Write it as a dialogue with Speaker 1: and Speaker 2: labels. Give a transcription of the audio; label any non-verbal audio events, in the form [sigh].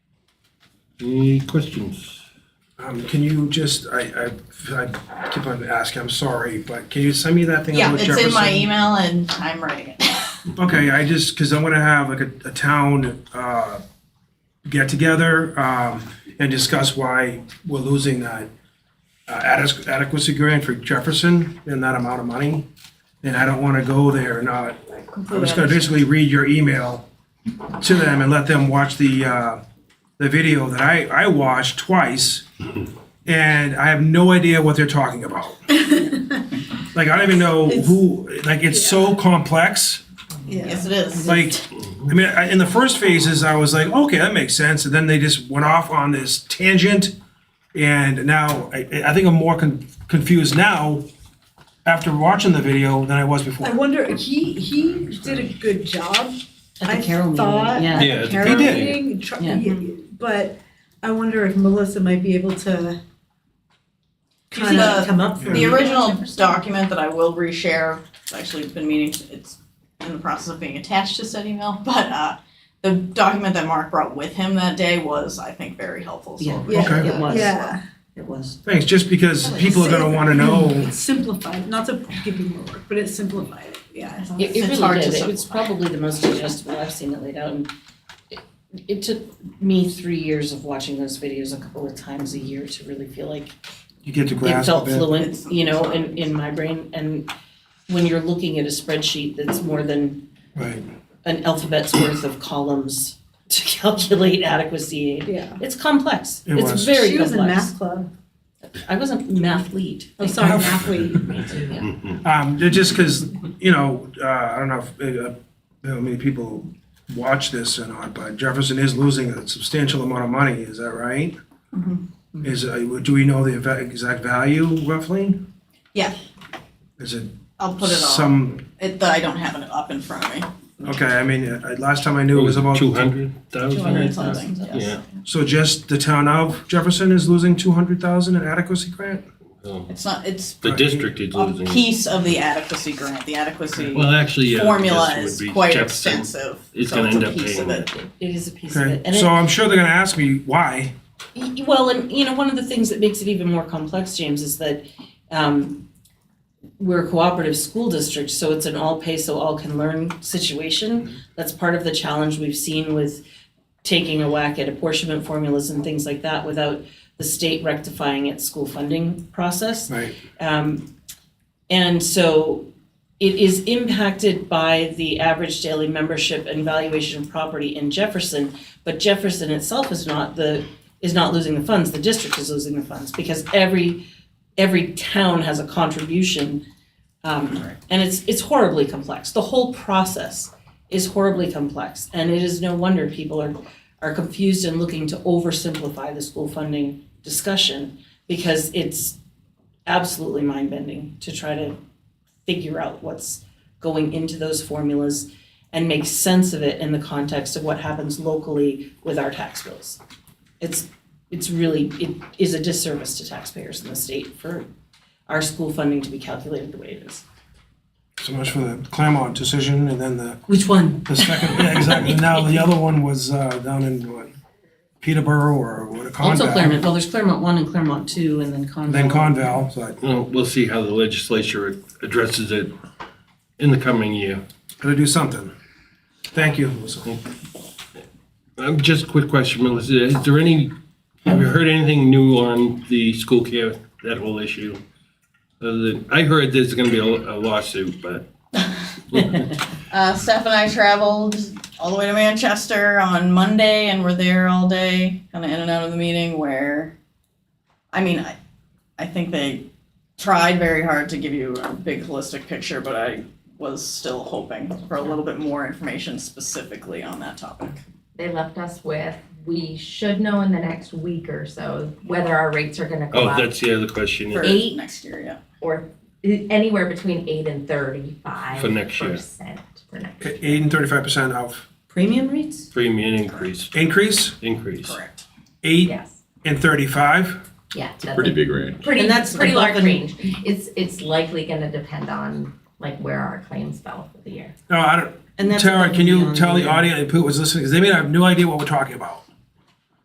Speaker 1: Any questions?
Speaker 2: Um, can you just, I, I, I keep on asking, I'm sorry, but can you send me that thing
Speaker 3: Yeah,
Speaker 2: about
Speaker 3: it's
Speaker 2: Jefferson?
Speaker 3: in my email and I'm writing it. [laughs]
Speaker 2: Okay, I just, because I'm gonna have like a, a town, uh, get together, um, and discuss why we're losing that uh, adequ- adequacy grant for Jefferson and that amount of money. And I don't wanna go there and not, I'm
Speaker 3: Completely
Speaker 2: just gonna
Speaker 3: understand.
Speaker 2: basically read your email to them and let them watch the, uh, the video that I, I watched twice. And I have no idea what they're talking about. Like, I don't even know who, like, it's so complex
Speaker 3: Yes, it is.
Speaker 2: like i mean I, in the first phases i was like okay that makes sense and then they just went off on this tangent and now i, I think i'm more con- confused now after watching the video than i was before
Speaker 4: I wonder, he, he did a good job.
Speaker 5: At
Speaker 4: I
Speaker 5: the Carol meeting,
Speaker 4: thought
Speaker 5: yeah.
Speaker 4: at the
Speaker 1: Yeah, at the
Speaker 4: Carol
Speaker 2: Carol meeting.
Speaker 4: meeting, tr-
Speaker 5: Yeah.
Speaker 4: y- But I wonder if Melissa might be able to
Speaker 3: You see
Speaker 4: kind
Speaker 3: the-
Speaker 4: of come up
Speaker 3: The
Speaker 4: with.
Speaker 3: original document that I will reshare, it's actually been meaning, to- it's in the process of being attached to said email, [laughs] but uh, the document that Mark brought with him that day was, I think, very helpful, so.
Speaker 5: Yeah.
Speaker 3: I'll
Speaker 4: Yeah.
Speaker 3: share
Speaker 5: It
Speaker 3: that.
Speaker 5: was.
Speaker 4: Yeah,
Speaker 5: It was.
Speaker 2: thanks just because people are going to want to
Speaker 4: [laughs]
Speaker 2: know
Speaker 4: it's simplified, not to give you more work, but it simplified it, yeah. it's-
Speaker 3: It's
Speaker 5: It, it
Speaker 3: hard to
Speaker 5: really did. It was
Speaker 3: simplify.
Speaker 5: probably the most digestible I've seen it laid out. And it, it took me three years of watching those videos a couple of times a year to really feel like
Speaker 2: you get to
Speaker 5: it
Speaker 2: grasp
Speaker 5: felt
Speaker 2: it
Speaker 3: It's-
Speaker 5: fluent, you know, in, in my brain. And when you're looking at a spreadsheet that's more than
Speaker 2: right
Speaker 5: an alphabet's worth of columns [laughs] to calculate adequacy,
Speaker 4: Yeah.
Speaker 5: it's complex.
Speaker 2: It
Speaker 5: It's
Speaker 2: was.
Speaker 5: very
Speaker 4: She was in
Speaker 5: complex.
Speaker 4: math club,
Speaker 5: I wasn't math lead.
Speaker 4: oh, sorry, math lead.
Speaker 5: Yeah.
Speaker 2: um, ju- just because you know uh, i don't know if, uh, how many people watch this or not but jefferson is losing a substantial amount of money is that right
Speaker 5: Mm-hmm.
Speaker 2: is uh, do we know the eva- exact value roughly
Speaker 3: Yeah.
Speaker 2: is it
Speaker 3: I'll put it on,
Speaker 2: some,
Speaker 3: it, the- I don't have it up in front of me,
Speaker 2: okay, I mean, uh, last time I knew it was about.
Speaker 1: Two hundred thousand?
Speaker 3: two hundred something, yes.
Speaker 1: Yeah.
Speaker 2: So just the town of Jefferson is losing two hundred thousand in adequacy grant?
Speaker 1: Oh.
Speaker 3: It's not, it's
Speaker 1: The district is
Speaker 3: a
Speaker 1: losing.
Speaker 3: piece of the adequacy grant, the adequacy
Speaker 1: Well, uh, actually, yeah.
Speaker 3: formula
Speaker 1: this
Speaker 3: is
Speaker 1: would be
Speaker 3: quite
Speaker 1: Jefferson.
Speaker 3: extensive,
Speaker 1: It's
Speaker 3: so
Speaker 1: gonna
Speaker 3: it's a
Speaker 1: end up
Speaker 3: piece of
Speaker 1: being-
Speaker 3: it.
Speaker 5: It is a piece of it.
Speaker 2: Okay,
Speaker 5: And it-
Speaker 2: so I'm sure they're gonna ask me why.
Speaker 5: Y- y- Well, and you know, one of the things that makes it even more complex, James, is that um, we're a cooperative school district, so it's an all pay so all can learn situation. That's part of the challenge we've seen with taking a whack at apportionment formulas and things like that without the state rectifying its school funding process.
Speaker 2: Right.
Speaker 5: Um, and so it is impacted by the average daily membership and valuation of property in Jefferson, but Jefferson itself is not the, is not losing the funds, the district is losing the funds, because every, every town has a contribution. Um, and it's, it's horribly complex, the whole process is horribly complex, and it is no wonder people are, are confused and looking to oversimplify the school funding discussion, because it's, absolutely mind bending to try to figure out what's going into those formulas and make sense of it in the context of what happens locally with our tax bills. It's it's really it is a disservice to taxpayers in the state for our school funding to be calculated the way it is.
Speaker 2: So much for the Claremont decision and then the,
Speaker 5: Which one?
Speaker 2: the second, yeah,
Speaker 5: [laughs]
Speaker 2: exactly. Now, the other one was, uh, down in what, Peterborough or what,
Speaker 5: Also
Speaker 2: Conval?
Speaker 5: Claremont. Well, there's Claremont one and Claremont two, and then Conval.
Speaker 2: Then Conval, so I,
Speaker 1: Well, we'll see how the legislature addresses it in the coming year.
Speaker 2: gotta do something. Thank you, Melissa.
Speaker 1: Um, just a quick question, Melissa, is there any, have you heard anything new on the school care, that whole issue? Other than, I heard there's gonna be a a lawsuit,
Speaker 3: [laughs]
Speaker 1: but
Speaker 3: Uh, Steph and I traveled all the way to Manchester on Monday and were there all day, kind of in and out of the meeting. Where, I mean, I, I think they tried very hard to give you a big holistic picture, but I was still hoping for a little bit more information specifically on that topic.
Speaker 6: they left us with, we should know in the next week or so whether our rates are gonna go
Speaker 1: Oh,
Speaker 6: up
Speaker 1: that's the other question
Speaker 3: For
Speaker 6: Eight.
Speaker 3: next year, yeah.
Speaker 6: or anywhere between eight and
Speaker 1: for
Speaker 6: thirty-five
Speaker 1: next year,
Speaker 6: percent for next year.
Speaker 2: Eight and thirty-five percent of
Speaker 5: Premium rates?
Speaker 1: premium increase,
Speaker 2: increase,
Speaker 1: increase.
Speaker 3: Correct.
Speaker 2: eight
Speaker 6: Yes,
Speaker 2: and thirty-five.
Speaker 6: yeah.
Speaker 7: It's a pretty big range.
Speaker 6: Pretty,
Speaker 5: And that's
Speaker 6: pretty
Speaker 5: above
Speaker 6: large
Speaker 5: and-
Speaker 6: range. It's, it's likely gonna depend on like where our claims fell for the year.
Speaker 2: No, I don't,
Speaker 5: And that's
Speaker 2: Tara,
Speaker 5: above
Speaker 2: can
Speaker 5: and
Speaker 2: you
Speaker 5: beyond
Speaker 2: tell the
Speaker 5: the-
Speaker 2: audience who was listening, because they may have no idea what we're talking about.